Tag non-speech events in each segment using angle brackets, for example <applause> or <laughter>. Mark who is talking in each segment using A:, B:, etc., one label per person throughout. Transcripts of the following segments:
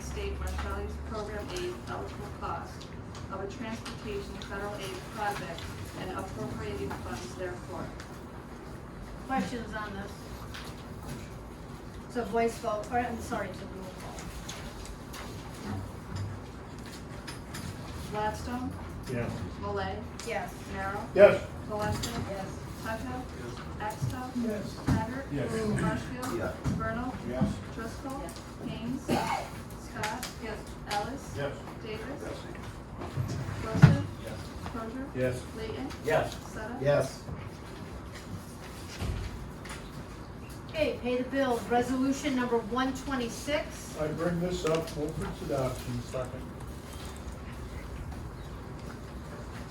A: State Marshallese Program Aid eligible cost of a transportation federal aid project and appropriating funds therefore.
B: Questions on this? So voice vote, or I'm sorry, it's a roll call.
A: Gladstone,
C: Yes.
A: Malay,
B: Yes.
A: Merrill,
C: Yes.
A: Valente,
B: Yes.
A: Tucker, Exto,
C: Yes.
A: Haggard,
C: Yes.
A: Marshfield,
D: Yeah.
A: Vernal,
C: Yes.
A: Driscoll, Haynes, Scott, Ellis,
C: Yes.
A: Davis,
D: Yes.
A: Wilson,
C: Yes.
A: Crozier,
C: Yes.
A: Layton,
C: Yes.
A: Sutta.
D: Yes.
B: Okay, pay the bills, resolution number one twenty-six.
C: I bring this up, move for its adoption. Second.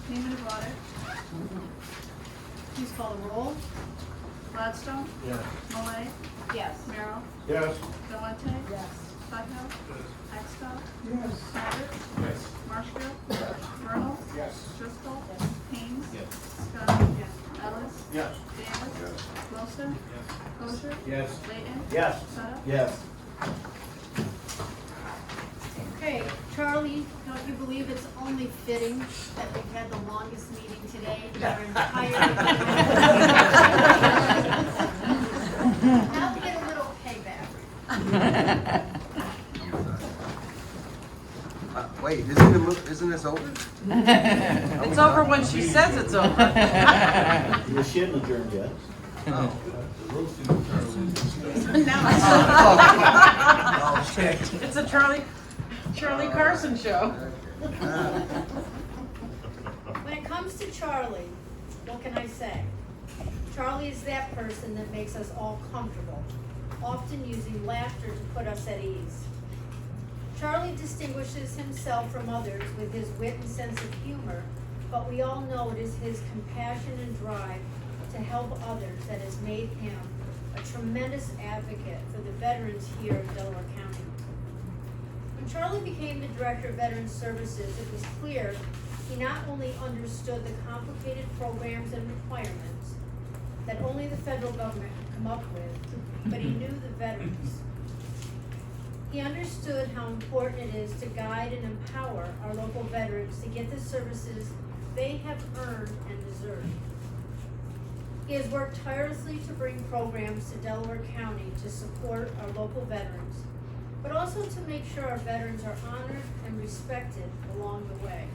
A: Payment of audit,
B: Please call the roll.
A: Gladstone,
C: Yes.
A: Malay,
B: Yes.
A: Merrill,
C: Yes.
A: Valente,
B: Yes.
A: Sutton, Exto,
C: Yes.
A: Haggard,
C: Yes.
A: Marshfield, Vernal,
C: Yes.
A: Driscoll,
B: Yes.
A: Haynes,
C: Yes.
A: Scott, Ellis,
C: Yes.
A: Davis, Wilson, Crozier,
C: Yes.
A: Layton,
C: Yes.
A: Sutta.
D: Yes.
B: Okay, Charlie, don't you believe it's only fitting that we've had the longest meeting today in our entire? Now we get a little payback.
D: Uh, Wait, isn't it, mo- isn't this over?
E: It's over when she says it's over.
F: The shit adjourned yet.
D: Oh. Oh, shit.
E: It's a Charlie, Charlie Carson show.
D: Uh,
B: When it comes to Charlie, what can I say? Charlie is that person that makes us all comfortable, often using laughter to put us at ease. Charlie distinguishes himself from others with his wit and sense of humor, but we all know it is his compassion and drive to help others that has made him a tremendous advocate for the veterans here in Delaware County. When Charlie became the Director of Veteran Services, it was clear he not only understood the complicated programs and requirements that only the federal government could come up with, but he knew the veterans. He understood how important it is to guide and empower our local veterans to get the services they have earned and deserve. He has worked tirelessly to bring programs to Delaware County to support our local veterans, but also to make sure our veterans are honored and respected along the way.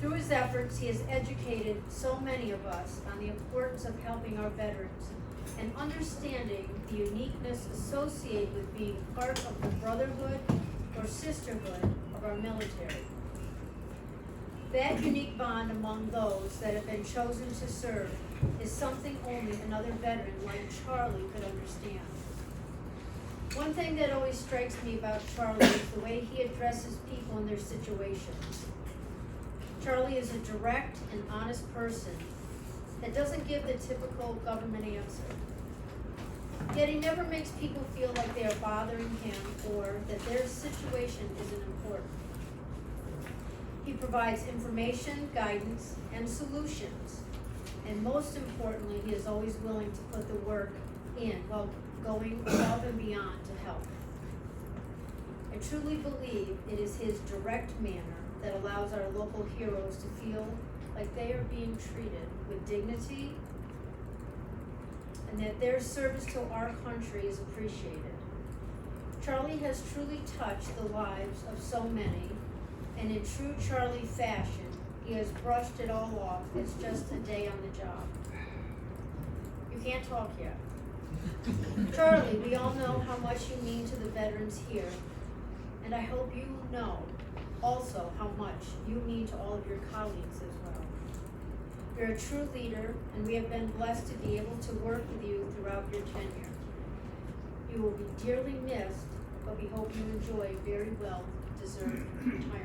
B: Through his efforts, he has educated so many of us on the importance of helping our veterans and understanding the uniqueness associated with being part of the brotherhood or sisterhood of our military. That unique bond among those that have been chosen to serve is something only another veteran like Charlie could understand. One thing that always strikes me about Charlie is the way he addresses people in their situations. Charlie is a direct and honest person that doesn't give the typical government answer. Yet he never makes people feel like they are bothering him or that their situation isn't important. He provides information, guidance, and solutions. And most importantly, he is always willing to put the work in while going above and beyond to help. I truly believe it is his direct manner that allows our local heroes to feel like they are being treated with dignity and that their service to our country is appreciated. Charlie has truly touched the lives of so many, and in true Charlie fashion, he has brushed it all off as just a day on the job. You can't talk yet. Charlie, we all know how much you mean to the veterans here, and I hope you know also how much you mean to all of your colleagues as well. You're a true leader, and we have been blessed to be able to work with you throughout your tenure. You will be dearly missed, but we hope you enjoy a very well-deserved retirement.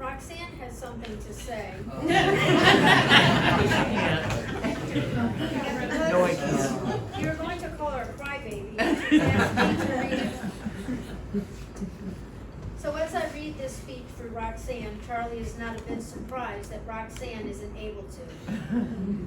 B: Roxanne has something to say.
E: No, I can't.
B: You're going to call her a
E: <laughs>
B: crybaby. You have to read it. So as I read this speech for Roxanne, Charlie is not a bit surprised that Roxanne isn't able to.